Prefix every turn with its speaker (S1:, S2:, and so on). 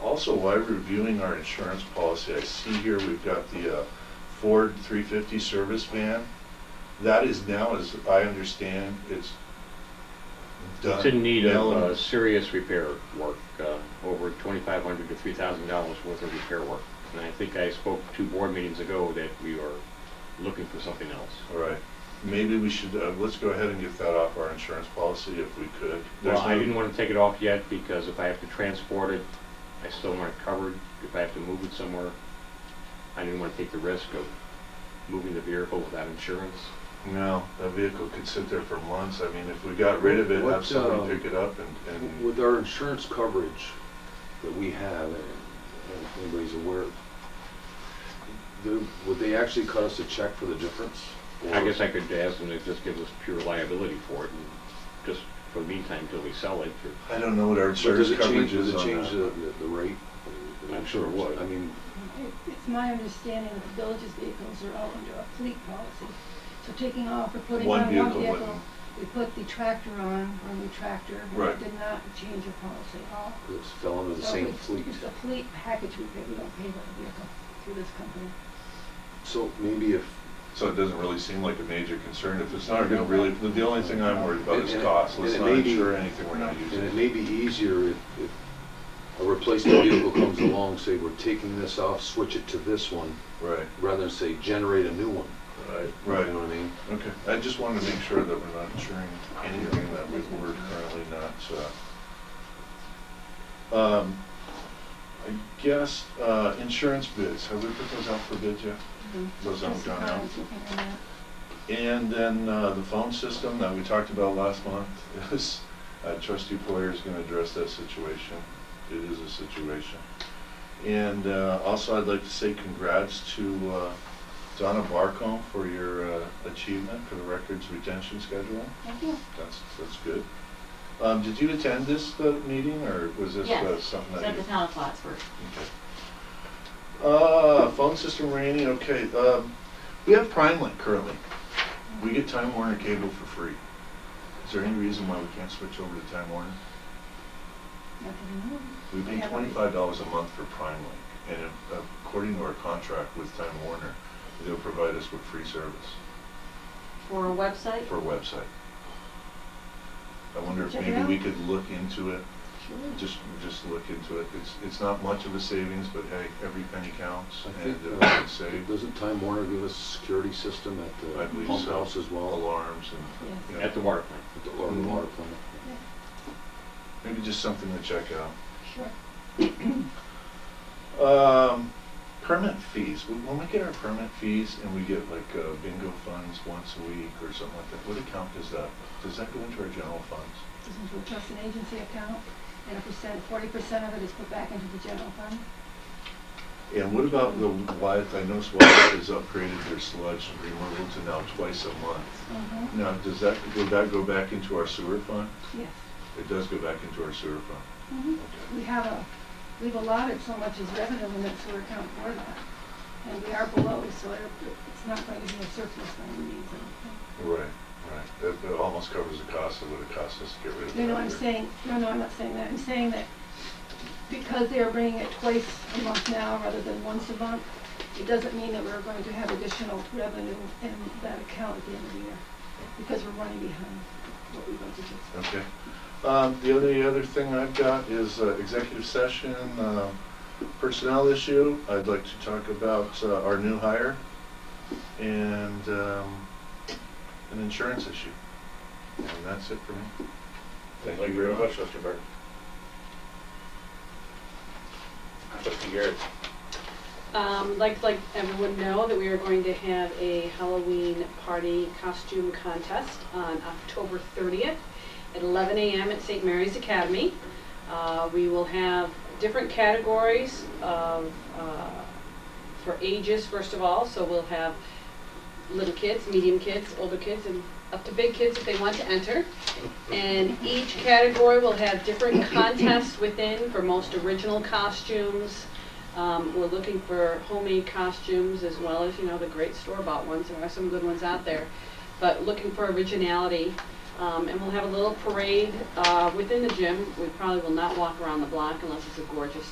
S1: Also, while reviewing our insurance policy, I see here we've got the uh, Ford 350 service van. That is now, as I understand, it's done.
S2: It's in need of
S1: Now,
S2: uh, serious repair work, uh, over twenty-five hundred to three thousand dollars worth of repair work. And I think I spoke two board meetings ago that we are looking for something else.
S1: All right, maybe we should, uh, let's go ahead and get that off our insurance policy if we could. There's
S2: Well, I
S1: no-
S2: didn't want to take it off yet because if I have to transport it, I still want it covered. If I have to move it somewhere, I didn't want to take the risk of moving the vehicle without insurance.
S1: No, that vehicle could sit there for months. I mean, if we got rid of it,
S3: What,
S1: have somebody
S3: uh,
S1: pick it up and, and
S3: With our insurance coverage that we have, and if anybody's aware, do- would they actually cut us a check for the difference?
S2: I guess I could ask them to just give us pure liability for it and just for the meantime till we sell it or
S1: I don't know what our
S3: Or
S1: insurance
S3: does it change,
S1: coverage
S3: does
S1: is
S3: it
S1: on
S3: change the,
S1: that.
S3: the- the rate?
S2: I'm sure it would.
S3: I mean,
S4: It- It's my understanding that the village's vehicles are all under a fleet policy. So taking off or putting
S1: One
S4: on
S1: vehicle
S4: one vehicle,
S1: wouldn't.
S4: we put the tractor on, or the tractor, and
S1: Right.
S4: it did not change the policy at all.
S3: it's fell under the
S4: So
S3: same
S4: Oh, it's-
S3: fleet.
S4: It's a fleet package we pay, we don't pay by the vehicle through this company.
S3: So maybe if,
S1: So it doesn't really seem like a major concern if it's not gonna really, the the only thing I'm worried about is
S3: Mm-hmm. And- and-
S1: cost. Let's
S3: and it
S1: not
S3: may be-
S1: insure anything we're not
S3: and it
S1: using.
S3: may be easier if, if a replacement vehicle comes along, say, we're taking this off, switch it to this one,
S1: Right,
S3: rather than say, generate a new one.
S1: right,
S3: You know
S1: right.
S3: what I mean?
S1: Okay, I just wanted to make sure that we're not insuring anything that we- we're currently not, uh, um, I guess, uh, insurance bids, have we put those out for bid yet?
S4: Mhm.
S1: Those haven't
S4: Just
S1: gone
S4: the
S1: out?
S4: cars, looking at that.
S1: And then uh, the phone system that we talked about last month is, uh, trustee Poyer is going to address that situation. It is a situation. And uh, also, I'd like to say congrats to uh, Donna Barcombe for your uh, achievement for the records retention schedule.
S4: Thank you.
S1: That's, that's good. Um, Did you attend this uh, meeting, or was this uh,
S5: Yes.
S1: something
S5: It's
S1: that
S5: at
S1: you?
S5: the town of Plattsburgh.
S1: Okay. Uh, phone system rating, okay, um, we have Prime Link currently. We get Time Warner Cable for free. Is there any reason why we can't switch over to Time Warner?
S4: Not that I know of.
S1: We pay
S4: Yeah.
S1: twenty-five dollars a month for Prime Link, and if- according to our contract with Time Warner, they'll provide us with free service
S5: For a website?
S1: for a website. I wonder if
S4: Check it
S1: maybe we
S4: out.
S1: could look into it,
S4: Sure.
S1: just, just look into it. It's, it's not much of a savings, but hey, every penny counts,
S3: I
S1: and
S3: think,
S1: uh,
S3: uh,
S1: it's saved.
S3: Doesn't Time Warner give us a security system at
S1: I
S3: the
S1: believe
S3: pump
S1: so.
S3: house as well?
S1: alarms and
S4: Yes.
S1: Yeah.
S2: at the water plant.
S3: At the- Or the water plant?
S1: maybe just something to check out.
S4: Sure.
S1: Um, permit fees, When- when we get our permit fees and we get like uh, bingo funds once a week or something like that, what account does that, does that go into our general funds?
S4: This is a trust and agency account, and a percent, forty percent of it is put back into the general fund.
S1: And what about the Wyeth, I noticed Wyeth has upgraded their sludge removal to now twice a month.
S4: Mhm.
S1: Now, does that, will that go back into our sewer fund?
S4: Yes.
S1: It does go back into our sewer fund.
S4: Mhm.
S1: Okay.
S4: We have a, we've allotted so much as revenue in that sewer account for that, and we are below, so it- it's not going to be a surplus by any means. I don't
S1: Right, right, that, that almost covers the cost of what it costs us to get rid of
S4: think.
S1: that.
S4: No, no, I'm saying, no, no, I'm not saying that, I'm saying that because they are bringing it twice a month now rather than once a month, it doesn't mean that we're going to have additional revenue in that account at the end of the year, because we're running behind what we budgeted.
S1: Okay. Um, The only other thing I've got is uh, executive session, uh, personnel issue. I'd like to talk about uh, our new hire and um, an insurance issue. And that's it for me.
S6: Thank you very much, Mr. Burke. Trustee Garrett,
S7: Um, like to let everyone know that we are going to have a Halloween party costume contest on October 30th at 11 a.m. at St. Mary's Academy. Uh, we will have different categories of, uh, for ages, first of all. So we'll have little kids, medium kids, older kids, and up to big kids if they want to enter. And each category will have different contests within for most original costumes. Um, we're looking for homemade costumes as well as, you know, the great store-bought ones. There are some good ones out there. But looking for originality. Um, and we'll have a little parade, uh, within the gym. We probably will not walk around the block unless it's a gorgeous